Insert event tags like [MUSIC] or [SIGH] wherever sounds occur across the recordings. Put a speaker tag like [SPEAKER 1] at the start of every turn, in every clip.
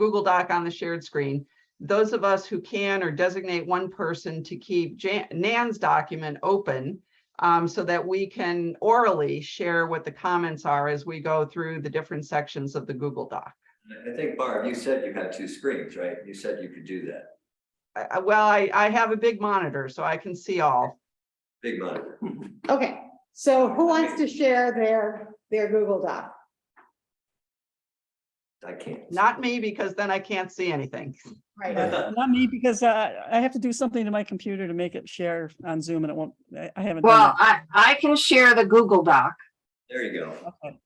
[SPEAKER 1] Google Doc on the shared screen. Those of us who can or designate one person to keep Jan- Nan's document open um, so that we can orally share what the comments are as we go through the different sections of the Google Doc.
[SPEAKER 2] I think Barb, you said you had two screens, right? You said you could do that,
[SPEAKER 1] I- I- Well, I, I have a big monitor, so I can see all.
[SPEAKER 2] big monitor.
[SPEAKER 3] Okay, so who wants to share their, their Google Doc?
[SPEAKER 2] I can't.
[SPEAKER 1] Not me, because then I can't see anything.
[SPEAKER 3] Right,
[SPEAKER 4] Not me, because uh, I have to do something to my computer to make it share on Zoom and it won't, I I haven't.
[SPEAKER 5] Well,
[SPEAKER 4] done
[SPEAKER 5] I, I can share the Google Doc.
[SPEAKER 2] [LAUGHS] There you go.
[SPEAKER 4] that. Okay.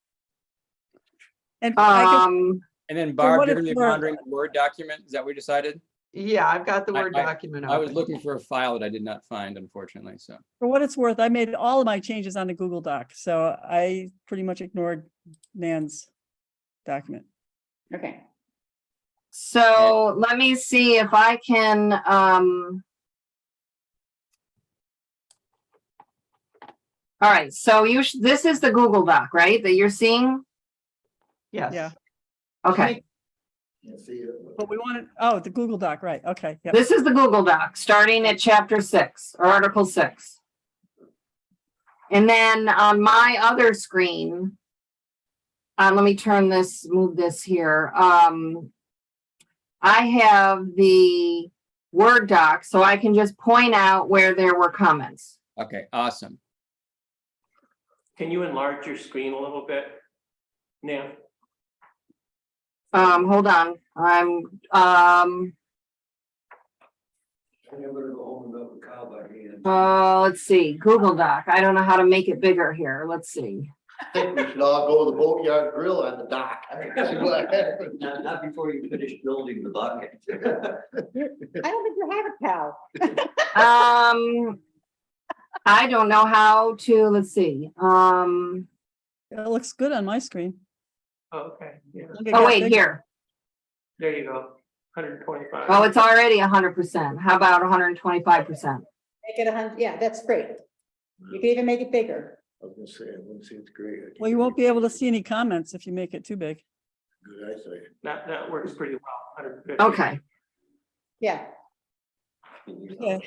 [SPEAKER 4] And I
[SPEAKER 5] Um,
[SPEAKER 6] And then
[SPEAKER 4] So what
[SPEAKER 6] Barb, you're
[SPEAKER 4] if
[SPEAKER 6] gonna be
[SPEAKER 4] we're-
[SPEAKER 6] monitoring the Word document, is that what we decided?
[SPEAKER 1] Yeah, I've got the
[SPEAKER 6] I-
[SPEAKER 1] Word
[SPEAKER 6] I-
[SPEAKER 1] document.
[SPEAKER 6] I was
[SPEAKER 1] open.
[SPEAKER 6] looking for a file that I did not find unfortunately, so.
[SPEAKER 4] for what it's worth, I made all of my changes on the Google Doc, so I pretty much ignored Nan's document.
[SPEAKER 3] okay.
[SPEAKER 5] so let me see if I can, um. All right, so you, sh- this is the Google Doc, right, that you're seeing?
[SPEAKER 4] Yeah.
[SPEAKER 1] Yes,
[SPEAKER 5] Okay,
[SPEAKER 4] But we wanted, oh, the Google Doc, right, okay, yeah.
[SPEAKER 5] this is the Google Doc, starting at chapter six or article six. And then on my other screen, uh, let me turn this, move this here. Um, I have the Word doc, so I can just point out where there were comments.
[SPEAKER 6] Okay, awesome.
[SPEAKER 7] Can you enlarge your screen a little bit? Now,
[SPEAKER 5] Um, hold on, I'm, um,
[SPEAKER 2] I'm gonna go home and milk the cow by hand.
[SPEAKER 5] uh, let's see, Google Doc. I don't know how to make it bigger here. Let's see.
[SPEAKER 8] think we should all go to the boatyard grill on the dock. [LAUGHS]
[SPEAKER 2] Not, not before you finish building
[SPEAKER 8] [LAUGHS]
[SPEAKER 2] the bucket.
[SPEAKER 3] I don't think you have a cow.
[SPEAKER 5] Um, I don't know how to, let's see, um,
[SPEAKER 4] It looks good on my screen.
[SPEAKER 7] okay, yeah,
[SPEAKER 4] I think it
[SPEAKER 5] oh
[SPEAKER 4] got
[SPEAKER 5] wait,
[SPEAKER 4] bigger.
[SPEAKER 5] here.
[SPEAKER 7] there you go, hundred and twenty-five.
[SPEAKER 5] Oh, it's already hundred percent. How about hundred and twenty-five percent?
[SPEAKER 3] Make it a hundred, yeah, that's great. You can even make it bigger.
[SPEAKER 8] I was gonna say, I wouldn't say it's great.
[SPEAKER 4] Well, you won't be able to see any comments if you make it too big.
[SPEAKER 8] Good eyesight.
[SPEAKER 7] That, that works pretty well, hundred and fifty.
[SPEAKER 5] Okay,
[SPEAKER 3] Yeah,
[SPEAKER 4] Yeah.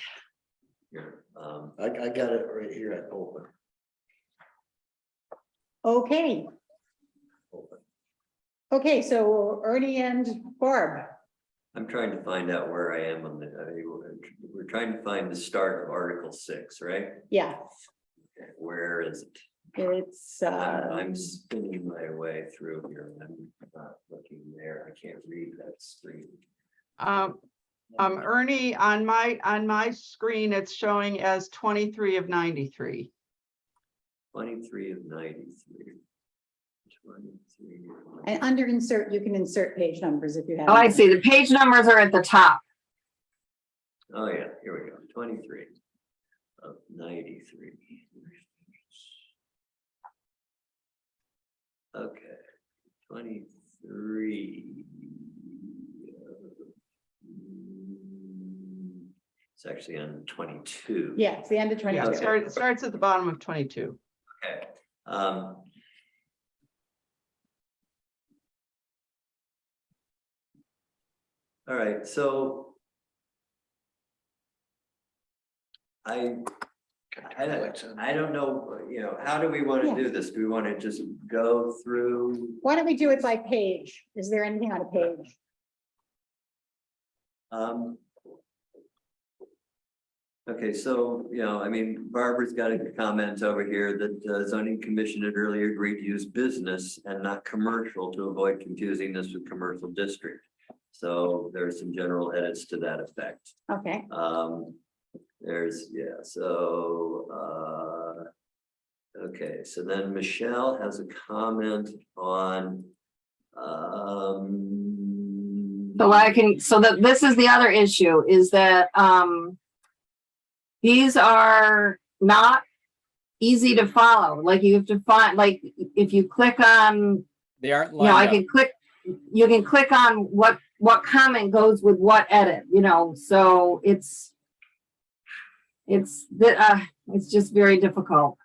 [SPEAKER 2] Um,
[SPEAKER 8] I, I got it right here, I open,
[SPEAKER 3] okay.
[SPEAKER 8] open.
[SPEAKER 3] Okay, so Ernie and Barb.
[SPEAKER 2] I'm trying to find out where I am on the, I mean, we're- we're trying to find the start of Article six, right?
[SPEAKER 3] Yeah,
[SPEAKER 2] Where is it?
[SPEAKER 3] it's,
[SPEAKER 2] I'm
[SPEAKER 3] uh,
[SPEAKER 2] I'm spinning my way through here. I'm not looking there. I can't read that screen.
[SPEAKER 1] Um, um, Ernie, on my, on my screen, it's showing as twenty-three of ninety-three.
[SPEAKER 2] Twenty-three of ninety-three. Twenty-three. of 93.
[SPEAKER 3] and under insert, you can insert page numbers if you have.
[SPEAKER 5] oh, I
[SPEAKER 3] them.
[SPEAKER 5] see, the page numbers are at the top.
[SPEAKER 2] Oh, yeah, here we go, twenty-three of ninety-three. Okay, twenty-three. of- Mm, It's actually on twenty-two.
[SPEAKER 3] Yeah, it's the end of
[SPEAKER 1] Yeah,
[SPEAKER 3] twenty-two.
[SPEAKER 1] it start- it starts at the bottom of twenty-two.
[SPEAKER 2] Okay, um. All right, so. I, I don't, I don't know, you know, how do we want to do this? Do we want to just go through?
[SPEAKER 3] Why don't we do it by page? Is there anything on a page?
[SPEAKER 2] Um. Okay, so, you know, I mean, Barbara's got a comment over here that the zoning commission had earlier agreed to use business and not commercial to avoid confusing this with commercial district. So there's some general edits to that effect.
[SPEAKER 3] Okay,
[SPEAKER 2] Um, there's, yeah, so, uh. Okay, so then Michelle has a comment on, um.
[SPEAKER 5] So I can, so that, this is the other issue, is that, um, these are not easy to follow, like you have to find, like, if you click on
[SPEAKER 6] They aren't
[SPEAKER 5] you know, I
[SPEAKER 6] lined up.
[SPEAKER 5] can click, you can click on what, what comment goes with what edit, you know, so it's, it's, the, uh, it's just very difficult.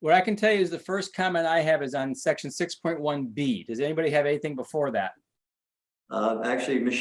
[SPEAKER 6] What I can tell you is the first comment I have is on section six point one B. Does anybody have anything before that?
[SPEAKER 2] Uh, actually, Michelle